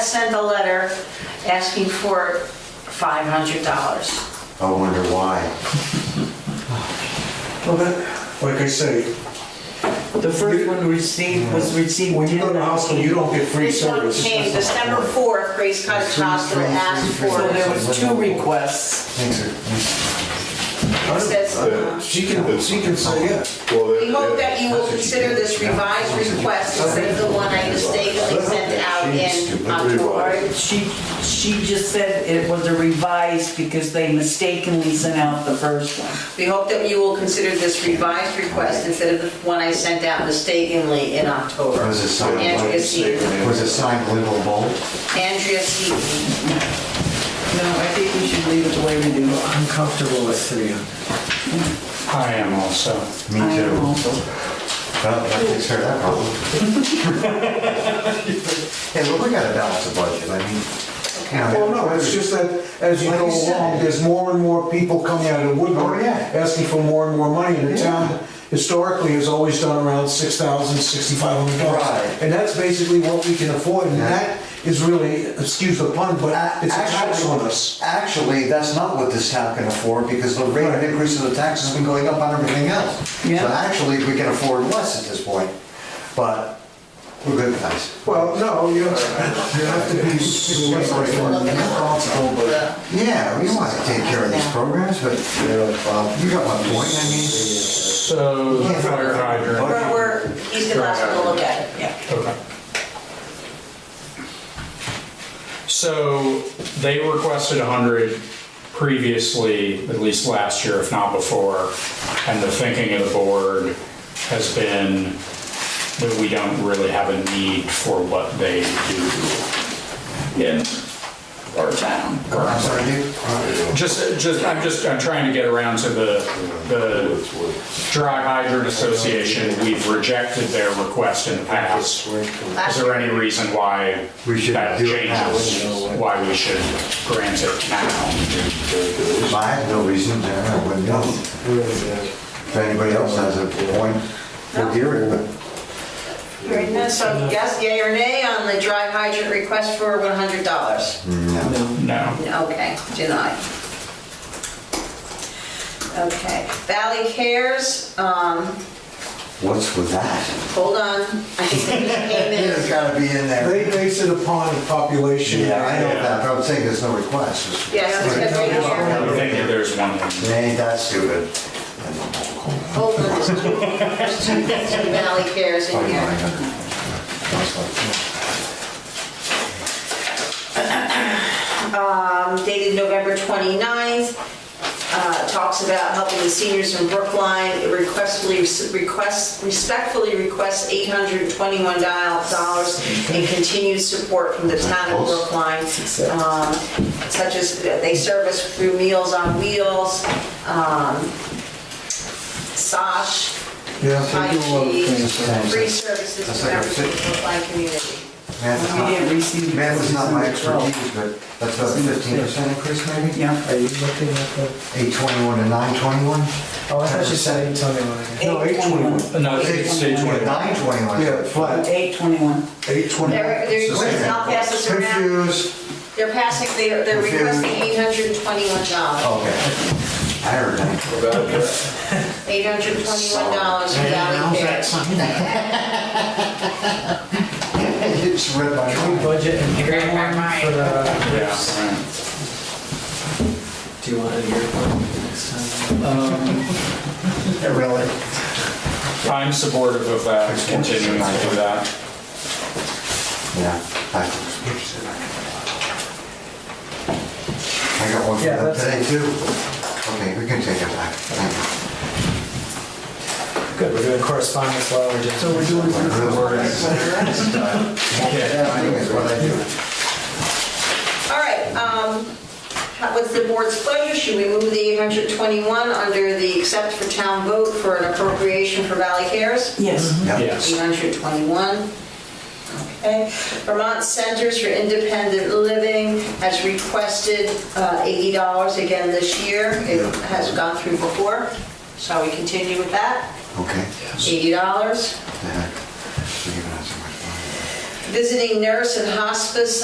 sent a letter asking for $500. I wonder why. Well, that, like I say, The first one received, was received. when you go to the 10. hospital, you don't get free This one service. came December 4th, Grace Cottage Free, Hospital free, asked free, free. So for there it. was two requests. I It don't- says, She can, she can say, yeah. we hope that you will consider this revised request instead of the one I mistakenly sent out in October. She, she just said it was a revised because they mistakenly sent out the first one. We hope that you will consider this revised request instead of the one I sent out mistakenly in October. Was it signed? Andrea Seaton. Was it signed Little Bolt? Andrea Seaton. No, I think we should leave it the way we do. I'm comfortable with three. I am also. Me too. Well, that takes care of that problem. Hey, but we gotta balance the budget, I mean. Well, no, it's just that as you Like go you said. along, there's more and more people coming out of the woodwork Oh, yeah. asking for more and more money, and the Yeah. town historically has always done around six thousand, sixty-five hundred dollars. Right. And that's basically what we can afford, and Yeah. that is really, excuse the pun, but it's a tax on us. Actually, that's not what this town can afford, because the rate of Right. increase of the tax has been going up on everything else. So Yeah. actually, we can afford less at this point, but we're good guys. Well, no, you you have to be responsible, but. Yeah, we want to take care of these programs, but uh, you got my point, I mean. So the fire hydrant. We're, we're, he's the last one to look at it, yeah. Okay. So they requested 100 previously, at least last year, if not before, and the thinking of the board has been that we don't really have a need for what they do in our town. I'm sorry, dude. Just, just, I'm just, I'm trying to get around to the, the Dry Hydrant Association, we've rejected their request in the past. Is there any reason why We should that do it now. changes, why we should grant it now? I have no reason, to, I wouldn't know. If anybody else has a point, we'll hear it, but Hearing none, So yes, yay or nay on the dry hydrant request for $100? No. Okay, denied. Okay, Valley Cares, um, what's with that? hold on, I think they came It's in. gotta be in there. They base it upon the population. Yeah, I know and- that, but I'm saying there's no request. Yes, it's got right I here. don't think that there's one. in- It ain't that stupid. Hold on, there's two, there's two Valley Cares in here. um, dated November 29th, uh, talks about helping the seniors in Brookline. It requestfully, requests, respectfully requests $821 in continued support from the town of Brookline, um, such as uh, they service through Meals on Wheels, um, SOSH, Yeah, they do a lot of IT, things. free services to members of the Brookline community. Math is We didn't not- receive. math is not my expertise, but that's about a fifteen percent increase maybe? Yeah. Are you looking at the, Eight twenty-one to nine twenty-one? oh, I thought you said eight twenty-one again. No, eight twenty-one. No, it's stage one. Nine twenty-one. Yeah, flat, Eight twenty-one. eight twenty-one. They're, they're, I'll pass this around. Confused. They're passing, they're, they're requesting eight hundred and twenty-one Oh. dollars. Okay. I heard that. Eight hundred and twenty-one dollars for Valley Cares. You just read my Can we mind. budget and hear one for the, Yeah, right. do you want to hear one next Um, time? Really? I'm supportive of that, continuing to do that. Yeah. I got one for Yeah, that that's- today too. Okay, we can take it back. Thank Good, we're doing correspondence while we're just. So we're doing you. some. Real worries. Yeah. Yeah, I think that's what I do. All right, um, how- what's the board's pleasure? Should we move the eight hundred and twenty-one under the accept for town vote for an appropriation for Valley Cares? Yes. Yep. Yes. 821. Okay. Vermont Centers for Independent Living has requested uh, $80 again this year. It has gone through before. Shall we continue with that? Okay. $80. The heck. You're giving us so much money. Visiting Nurse and Hospice